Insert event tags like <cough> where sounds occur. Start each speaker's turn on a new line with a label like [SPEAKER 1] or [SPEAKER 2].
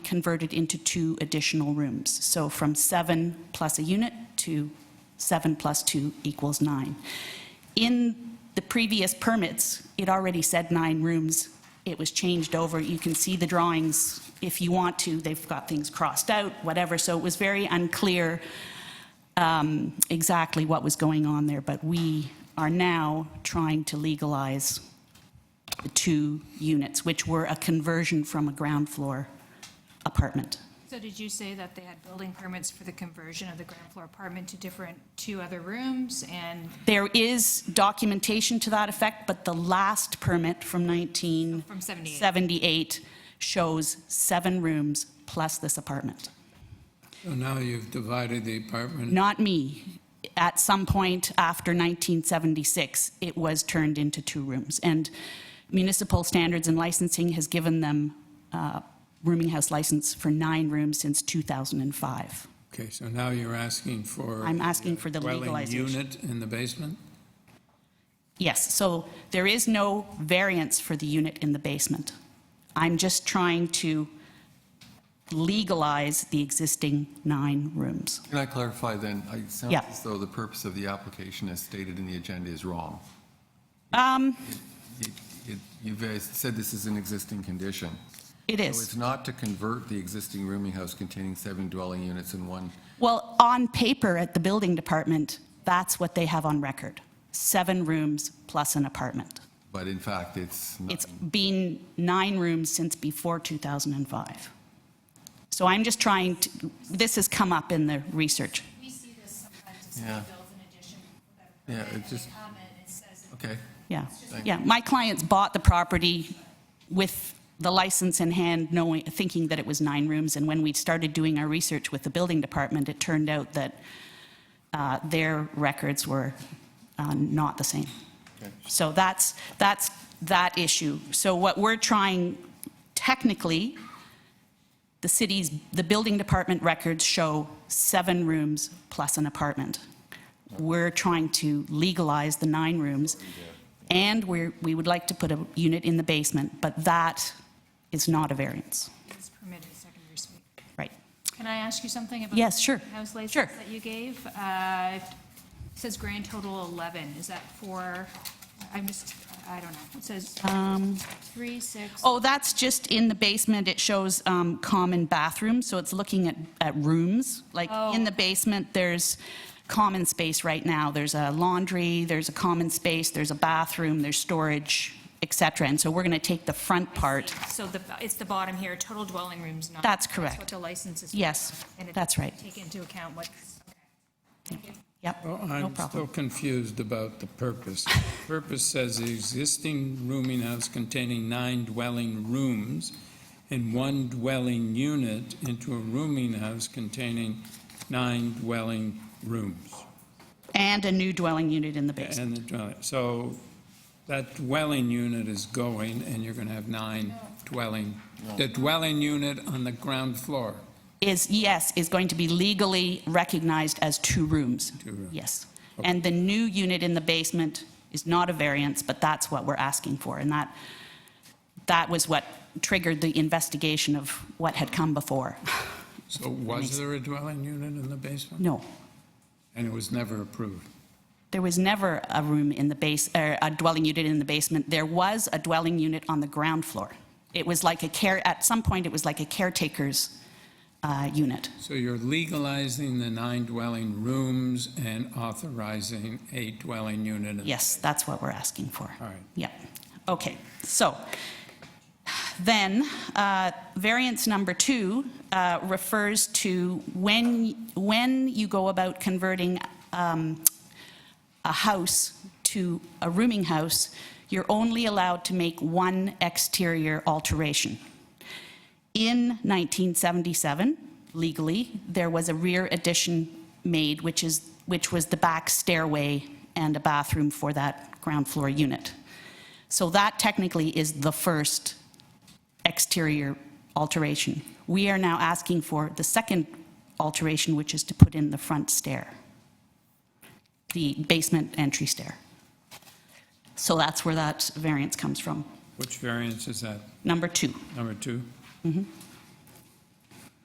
[SPEAKER 1] converted into two additional rooms. So from seven plus a unit to seven plus two equals nine. In the previous permits, it already said nine rooms. It was changed over. You can see the drawings if you want to. They've got things crossed out, whatever. So it was very unclear um, exactly what was going on there. But we are now trying to legalize the two units, which were a conversion from a ground floor apartment.
[SPEAKER 2] So did you say that they had building permits for the conversion of the ground floor apartment to different, two other rooms? And
[SPEAKER 1] There is documentation to that effect, but the last permit from 19...
[SPEAKER 2] From 78.
[SPEAKER 1] 78 shows seven rooms plus this apartment.
[SPEAKER 3] So now you've divided the apartment.
[SPEAKER 1] Not me. At some point after 1976, it was turned into two rooms. And municipal standards and licensing has given them uh, rooming house license for nine rooms since 2005.
[SPEAKER 3] Okay, so now you're asking for.
[SPEAKER 1] I'm asking for the
[SPEAKER 3] dwelling
[SPEAKER 1] legalization.
[SPEAKER 3] Unit in the basement?
[SPEAKER 1] Yes, so there is no variance for the unit in the basement. I'm just trying to legalize the existing nine rooms.
[SPEAKER 4] Can I clarify then? It sounds
[SPEAKER 1] Yeah.
[SPEAKER 4] as though the purpose of the application as stated in the agenda is wrong.
[SPEAKER 1] Um,
[SPEAKER 4] It- it- You've uh, said this is an existing condition.
[SPEAKER 1] It
[SPEAKER 4] So it's
[SPEAKER 1] is.
[SPEAKER 4] not to convert the existing rooming house containing seven dwelling units in one.
[SPEAKER 1] Well, on paper at the building department, that's what they have on record. Seven rooms plus an apartment.
[SPEAKER 4] But in fact, it's not.
[SPEAKER 1] It's been nine rooms since before 2005. So I'm just trying to, this has come up in the research.
[SPEAKER 5] We see this sometimes if someone
[SPEAKER 4] Yeah.
[SPEAKER 5] builds an addition without a
[SPEAKER 4] Yeah,
[SPEAKER 5] permit,
[SPEAKER 4] it
[SPEAKER 5] and they
[SPEAKER 4] just-
[SPEAKER 5] come in, it says
[SPEAKER 4] Okay.
[SPEAKER 1] Yeah,
[SPEAKER 4] Thank
[SPEAKER 1] yeah. My clients bought the property with the license in hand, knowing, thinking that it was nine rooms. And when we started doing our research with the building department, it turned out that uh, their records were uh, not the same. So that's, that's that issue. So what we're trying, technically, the city's, the building department records show seven rooms plus an apartment. We're trying to legalize the nine rooms, and we're, we would like to put a unit in the basement, but that is not a variance,
[SPEAKER 2] it's permitted secondary suite.
[SPEAKER 1] right?
[SPEAKER 2] Can I ask you something about?
[SPEAKER 1] Yes,
[SPEAKER 2] the
[SPEAKER 1] sure.
[SPEAKER 2] House license
[SPEAKER 1] Sure.
[SPEAKER 2] that you gave? Uh, it Says grand total 11. Is that for, I'm just, I don't know. It says three, six.
[SPEAKER 1] Um, Oh, that's just in the basement, it shows um, common bathrooms, so it's looking at, at rooms. Like, in the basement, there's common space right now, there's a laundry, there's a common space, there's a bathroom, there's storage, et cetera. And so we're going to take the front part,
[SPEAKER 2] So the, it's the bottom here, total dwelling rooms, not.
[SPEAKER 1] That's
[SPEAKER 2] what
[SPEAKER 1] correct.
[SPEAKER 2] the license is. for.
[SPEAKER 1] Yes,
[SPEAKER 2] And it
[SPEAKER 1] that's right.
[SPEAKER 2] Take into account what's,
[SPEAKER 1] Yep,
[SPEAKER 3] Well,
[SPEAKER 1] no
[SPEAKER 3] I'm still
[SPEAKER 1] problem.
[SPEAKER 3] confused about the purpose. <laughs> Purpose says the existing rooming house containing nine dwelling rooms and one dwelling unit into a rooming house containing nine dwelling rooms.
[SPEAKER 1] And a new dwelling unit in the basement.
[SPEAKER 3] And the dwelling, so that dwelling unit is going, and you're going to have nine dwelling, the dwelling unit on the ground floor.
[SPEAKER 1] Is, yes, is going to be legally recognized as two rooms.
[SPEAKER 3] Two rooms.
[SPEAKER 1] Yes. And the new unit in the basement is not a variance, but that's what we're asking for. And that, that was what triggered the investigation of what had come before. <laughs>
[SPEAKER 3] So was there a dwelling unit in the basement?
[SPEAKER 1] No,
[SPEAKER 3] And it was never approved.
[SPEAKER 1] there was never a room in the base, er, a dwelling unit in the basement. There was a dwelling unit on the ground floor. It was like a care, at some point, it was like a caretaker's uh, unit.
[SPEAKER 3] So you're legalizing the nine dwelling rooms and authorizing a dwelling unit? in-
[SPEAKER 1] Yes, that's what we're asking for.
[SPEAKER 3] All right.
[SPEAKER 1] Yeah, okay. So then, uh, variance number two uh, refers to when, when you go about converting um, a house to a rooming house, you're only allowed to make one exterior alteration. In 1977, legally, there was a rear addition made, which is, which was the back stairway and a bathroom for that ground floor unit. So that technically is the first exterior alteration. We are now asking for the second alteration, which is to put in the front stair, the basement entry stair. So that's where that variance comes from,
[SPEAKER 3] Which variance is that?
[SPEAKER 1] number two.
[SPEAKER 3] Number two?